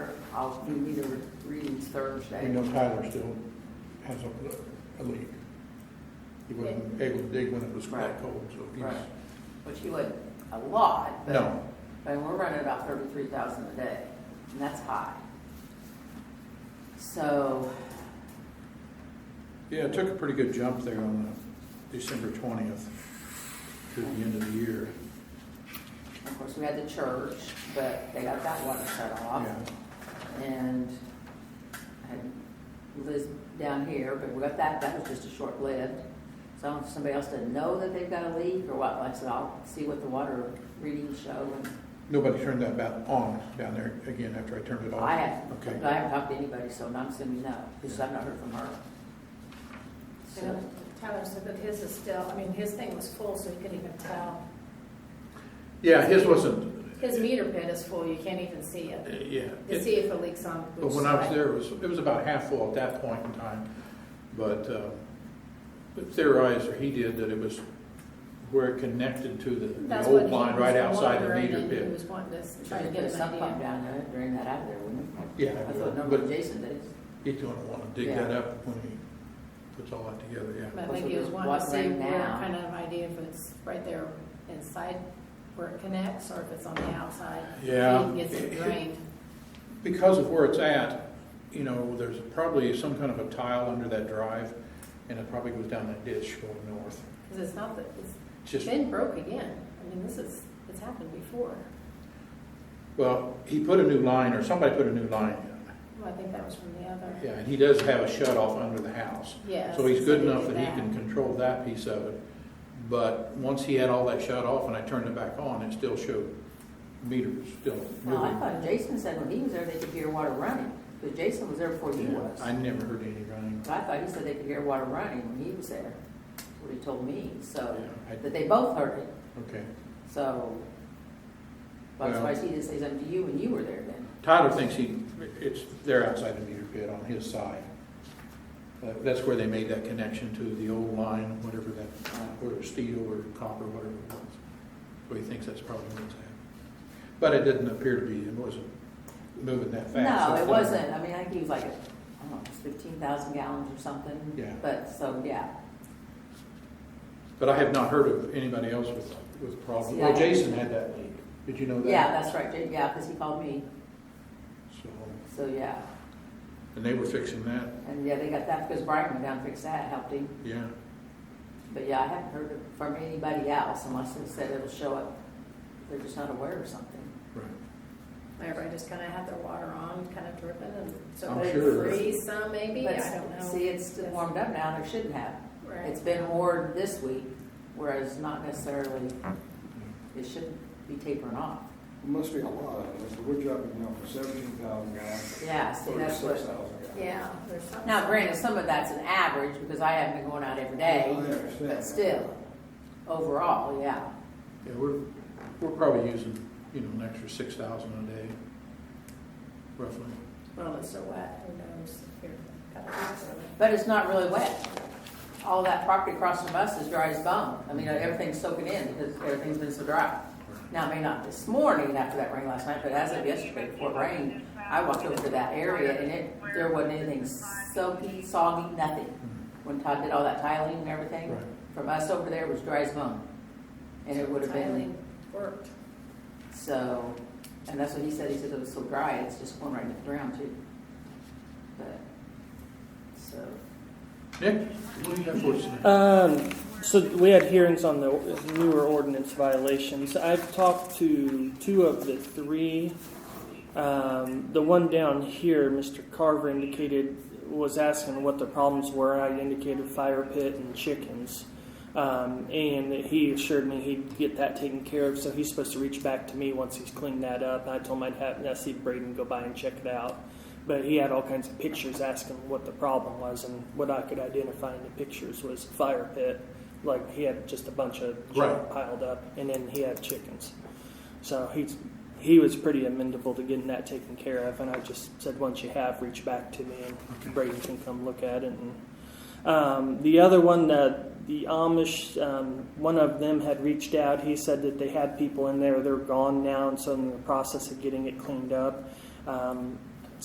I'll do meter readings Thursday. We know Tyler still has a, a leak. He wasn't able to dig when it was Right. that cold, so Right, he's, which he would a lot, but. no. But we're running about thirty-three thousand a day, and that's high. So, Yeah, it took a pretty good jump there on the December twentieth to the end of the year. of course, we had the church, but they got that water shut off. Yeah, And I had Liz down here, but we got that, that was just a short lived. So I don't know if somebody else didn't know that they've got a leak or what, like I said, I'll see what the water readings show. and Nobody turned that back on down there again after I turned it off. I haven't, Okay. but I haven't talked to anybody, so I'm assuming no, because I've not heard from her. So, And Tyler said that his is still, I mean, his thing was full, so he couldn't even tell. Yeah, his wasn't, His meter pit is full, you can't even see uh, it, yeah. to It- see if it leaks on But which when I was side. there, it was, it was about half full at that point in time, but, uh, but theorized, or he did, that it was where it connected to the, the That's old what he line right was outside the wondering, meter and He pit. was wanting to try try to get a an sump pump idea. down there, and drain that out of there, wouldn't it? Yeah, I thought number but Jason did. he's gonna wanna dig that up when he puts all that together, yeah. But like he was wanting to What's see right where, now? kind of idea if it's right there inside where it connects, or if it's on the outside. Yeah. He gets it drained. Because of where it's at, you know, there's probably some kind of a tile under that drive, and it probably goes down that ditch going north. Because it's not that, it's It's Just, been broke again. I mean, this is, it's happened before. well, he put a new line, or somebody put a new line in. Well, I think that was from the other. Yeah, and he does have a shut off under the house. Yes. So he's good they enough did that he can control that piece of it. But once he had all that shut off and I turned it back on, it still showed meters still Well, Oh, I moving. thought Jason said when he was there, they could hear water running, but Jason was there before he was. I never heard any running. So I thought he said they could hear water running when he was there, what he told me, so, Yeah, I- that they both heard it, Okay. so. That's Well- why she didn't say something to you when you were there then. Tyler thinks he, it's, they're outside the meter pit on his side. Uh, That's where they made that connection to the old line, whatever that, uh, whether steel or copper, whatever it was. So he thinks that's probably what's happening. But it didn't appear to be, it wasn't moving that fast. No, it Something- wasn't, I mean, I think he was like, I don't know, fifteen thousand gallons or something. Yeah. But, so, yeah, But I have not heard of anybody else with, with problems. See, Well, I- Jason had that leak. Did you know that? yeah, that's right, Ja- yeah, because he called me, So, so, yeah, and they were fixing that, and yeah, they got that, because Brian went down and fixed that, helped him. yeah. But yeah, I haven't heard it from anybody else unless they said it'll show up. They're just not aware of something. Right. Everybody just kind of had their water on, kind of dripping, and so I'm they sure. freeze some maybe, I But don't know. See, it's warmed up now, and it shouldn't have. Right. It's been more this week, whereas not necessarily, Yeah. it shouldn't be tapering off. Must be a lot of it, so we're dropping down from seventeen thousand gallons. Yeah, see, that's what- Thirty-six thousand gallons. Yeah, there's something. Now, granted, some of that's an average because I haven't been going out every day, Oh, I understand. but still, overall, yeah. Yeah, we're, we're probably using, you know, an extra six thousand a day, roughly. Well, it's so wet, who knows? if you're- got a lot of it. But it's not really wet. All that property across from us is dry as bone. I mean, everything's soaking in because everything's been so dry. Now, it may not this morning after that rain last night, but as of yesterday before it rained, I walked over to that area and it, there wasn't anything soaky, soggy, nothing. Hmm. When Todd did all that tiling and everything, Right. from us over there was dry as bone. And it would have been, Tiling Worked. so, and that's what he said, he said it was so dry, it's just going right into the ground too. But, so, Nick, what do you have for us tonight? Um, so we had hearings on the newer ordinance violations. I've talked to two of the three. Um, the one down here, Mr. Carver indicated, was asking what the problems were. I indicated fire pit and chickens. Um, and he assured me he'd get that taken care of, so he's supposed to reach back to me once he's cleaned that up. I told him I'd have, i see Braden go by and check it out. But he had all kinds of pictures asking what the problem was, and what I could identify in the pictures was fire pit. Like he had just a bunch of junk Right. piled up, and then he had chickens. So he's he was pretty amenable to getting that taken care of, and I just said once you have, reach back to me, and Braden can come look at it. And um, the other one, uh, the Amish, um, one of them had reached out. He said that they had people in there, they're gone now, and so in the process of getting it cleaned up. Um,